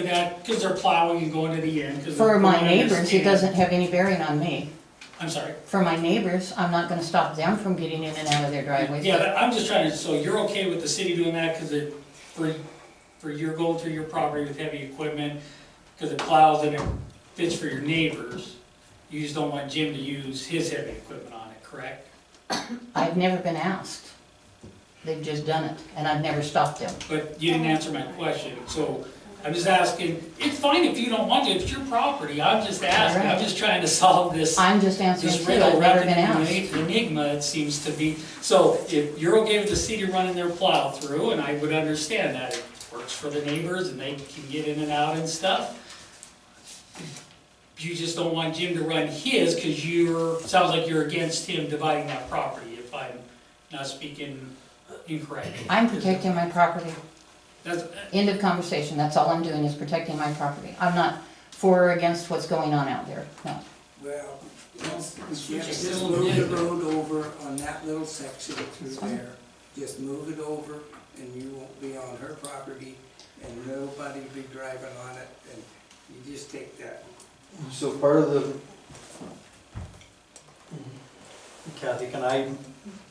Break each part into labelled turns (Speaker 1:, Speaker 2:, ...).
Speaker 1: for that, because they're plowing and going to the end, because.
Speaker 2: For my neighbors, it doesn't have any bearing on me.
Speaker 1: I'm sorry.
Speaker 2: For my neighbors, I'm not gonna stop them from getting in and out of their driveways.
Speaker 1: Yeah, but I'm just trying to, so you're okay with the city doing that, because it, for, for your going through your property with heavy equipment, because it plows and it fits for your neighbors, you just don't want Jim to use his heavy equipment on it, correct?
Speaker 2: I've never been asked. They've just done it, and I've never stopped them.
Speaker 1: But you didn't answer my question, so I'm just asking, it's fine if you don't want to, it's your property, I'm just asking, I'm just trying to solve this.
Speaker 2: I'm just answering
Speaker 1: This
Speaker 2: too, I've
Speaker 1: riddle
Speaker 2: never
Speaker 1: wrapped
Speaker 2: been asked.
Speaker 1: in an enigma, it seems to be, so if you're okay with the city running their plow through, and I would understand that, it works for the neighbors and they can get in and out and stuff. You just don't want Jim to run his, cause you're, sounds like you're against him dividing that property, if I'm not speaking incorrectly.
Speaker 2: I'm protecting my property.
Speaker 1: That's,
Speaker 2: End of conversation, that's all I'm doing is protecting my property. I'm not for or against what's going on out there, no.
Speaker 3: Well, let's,
Speaker 1: Switch it
Speaker 3: yeah, just
Speaker 1: down.
Speaker 3: move the road over on that little section through
Speaker 2: fine.
Speaker 3: there. Just move it over and you won't be on her property and nobody be driving on it and you just take that.
Speaker 4: So part of the, Kathy, can I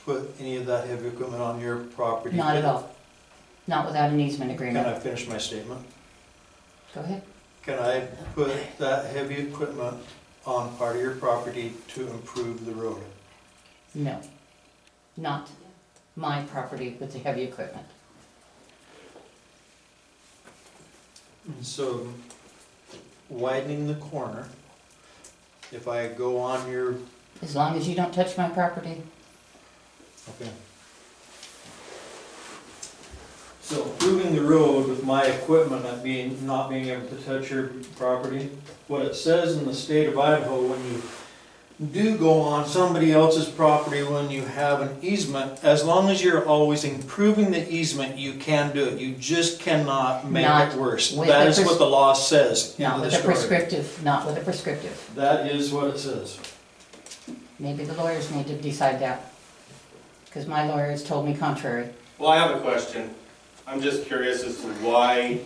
Speaker 4: put any of that heavy equipment on your property?
Speaker 2: Not at all. Not without an easement
Speaker 4: Can
Speaker 2: agreement.
Speaker 4: I finish my statement?
Speaker 2: Go ahead.
Speaker 4: Can I put that heavy equipment on part of your property to improve the road?
Speaker 2: No. Not my property with the heavy equipment. Mm-hmm.
Speaker 4: So widening the corner, if I go on your,
Speaker 2: As long as you don't touch my property,
Speaker 4: okay. So improving the road with my equipment not being, not being able to touch your property, what it says in the state of Idaho, when you do go on somebody else's property when you have an easement, as long as you're always improving the easement, you can do it. You just cannot make
Speaker 2: Not
Speaker 4: it worse.
Speaker 2: with
Speaker 4: That
Speaker 2: the
Speaker 4: is what
Speaker 2: pres-
Speaker 4: the law says. End
Speaker 2: not
Speaker 4: of the
Speaker 2: with a
Speaker 4: story.
Speaker 2: prescriptive, not with a prescriptive.
Speaker 4: That is what it says.
Speaker 2: Maybe the lawyers need to decide that. Because my lawyers told me contrary.
Speaker 5: Well, I have a question. I'm just curious as to why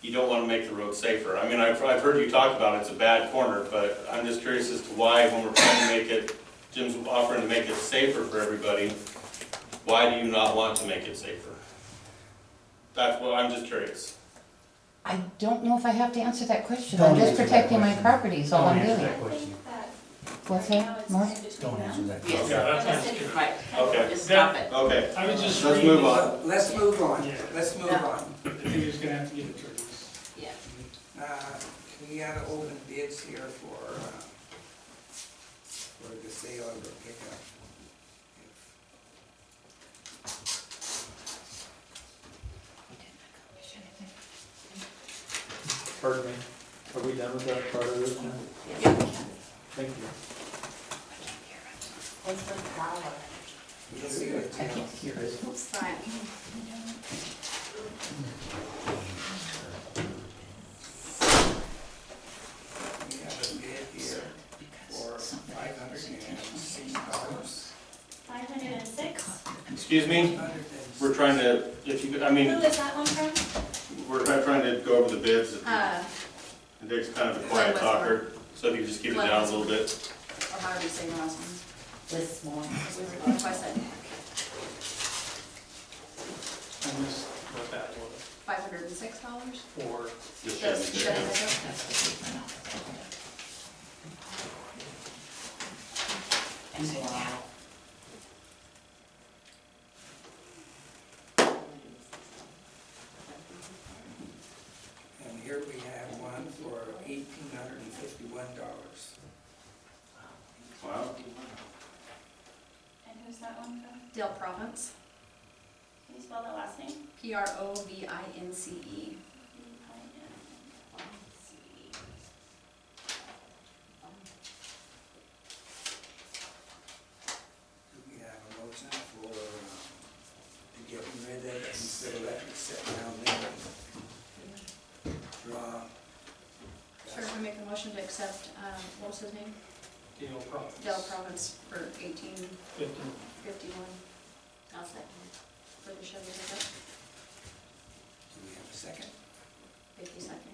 Speaker 5: you don't want to make the road safer. I mean, I've, I've heard you talk about it's a bad corner, but I'm just curious as to why when we're trying to make it, Jim's offering to make it safer for everybody, why do you not want to make it safer? That's what, I'm just curious.
Speaker 2: I don't know if I have to answer that question.
Speaker 6: Don't
Speaker 2: I'm just
Speaker 6: answer that
Speaker 2: protecting my
Speaker 6: question.
Speaker 2: property is all
Speaker 6: Don't
Speaker 2: I'm
Speaker 6: answer
Speaker 2: doing.
Speaker 6: that question.
Speaker 2: What's
Speaker 7: Right now,
Speaker 2: that,
Speaker 7: it's
Speaker 2: Mark?
Speaker 7: in between
Speaker 6: Don't answer
Speaker 7: them.
Speaker 6: that
Speaker 8: Yes,
Speaker 6: question.
Speaker 1: Yeah, that's not
Speaker 8: that's
Speaker 1: good.
Speaker 8: right.
Speaker 5: Okay.
Speaker 8: Just stop it.
Speaker 5: Okay,
Speaker 1: I was just
Speaker 5: Let's
Speaker 1: reading.
Speaker 5: move
Speaker 1: this
Speaker 5: on.
Speaker 1: up.
Speaker 3: So, Let's move on,
Speaker 1: Yeah.
Speaker 3: let's move
Speaker 8: Yeah.
Speaker 3: on.
Speaker 1: I think you're just gonna have to get attorneys.
Speaker 8: Yeah.
Speaker 3: Uh, We gotta open bids here for, uh, for the sale of the pickup.
Speaker 4: Pardon me, are we done with that part of it now? Thank you.
Speaker 8: What's the power?
Speaker 3: You'll see what it tells.
Speaker 8: What's that?
Speaker 3: We have a bid here for five hundred and six dollars.
Speaker 7: Five hundred and six?
Speaker 5: excuse me? We're trying to, if you, could- I
Speaker 7: Who
Speaker 5: mean,
Speaker 7: is that one from?
Speaker 5: we're trying to go over the bids.
Speaker 8: Uh,
Speaker 5: Dick's kind of a quiet talker, so if you could just keep it down a little bit.
Speaker 8: or how do you say your last name?
Speaker 9: This morning.
Speaker 8: Whismore, twice that,
Speaker 1: And this, what that was
Speaker 8: five hundred and six dollars?
Speaker 1: for.
Speaker 5: Just
Speaker 8: That's,
Speaker 5: shut it down.
Speaker 8: that's,
Speaker 3: And here we have one for eighteen hundred and fifty-one dollars.
Speaker 5: Wow.
Speaker 7: And who's that one from?
Speaker 8: Dale Province,
Speaker 7: Can you spell that last name?
Speaker 8: P R O V I N C E.
Speaker 3: Do we have a motion for, uh, to get rid of it and so let it sit down there? and Draw.
Speaker 8: Sure, we make a motion to accept, um, what was his name?
Speaker 1: Dale Province.
Speaker 8: Dale Province for eighteen
Speaker 1: Fifteen.
Speaker 8: fifty-one. I'll second. For the Chevy pickup,
Speaker 3: Do we have a second?
Speaker 8: fifty seconds.